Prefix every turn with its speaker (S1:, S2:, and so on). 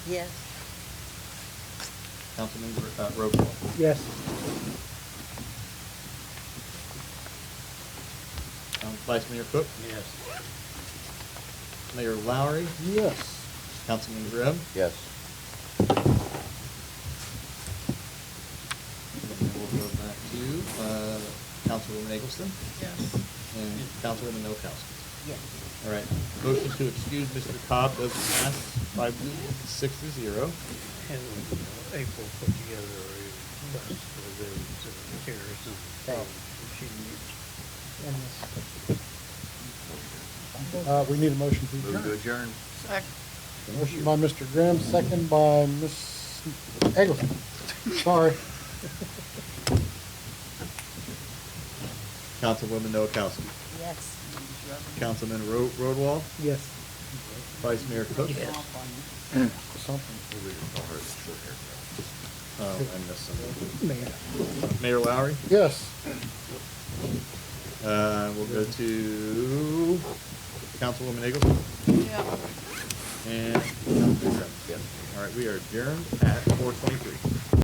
S1: Yes.
S2: Councilmember, uh, roll call.
S3: Yes.
S2: Um, Vice Mayor Cook,
S3: Yes.
S2: Mayor Lowry,
S3: Yes.
S2: Councilmember Webb,
S4: Yes.
S2: and then we'll go back to, uh, Councilwoman Eggleston
S1: Yes.
S2: and Councilwoman Noakowski.
S1: Yes.
S2: All right, motion to excuse Mr. Cobb does pass five, to- six to zero.
S5: And uh, April put together a request for those uh, chairs and problems she needs.
S3: And this. Uh, we need a motion to
S4: Move to
S3: adjourn.
S4: adjourn.
S3: Motion by Mr. Grimm, second by Ms. Eggleston. Sorry.
S2: Councilwoman Noakowski,
S1: Yes.
S2: Councilman Ro- Rodwall,
S3: Yes.
S2: Vice Mayor Cook.
S3: Something.
S2: Oh, I missed something.
S3: Mayor.
S2: Mayor Lowry,
S3: Yes.
S2: uh, we'll go to Councilwoman Eggleston
S1: Yeah.
S2: and Councilman Grimm. All right, we are adjourned at four twenty-three.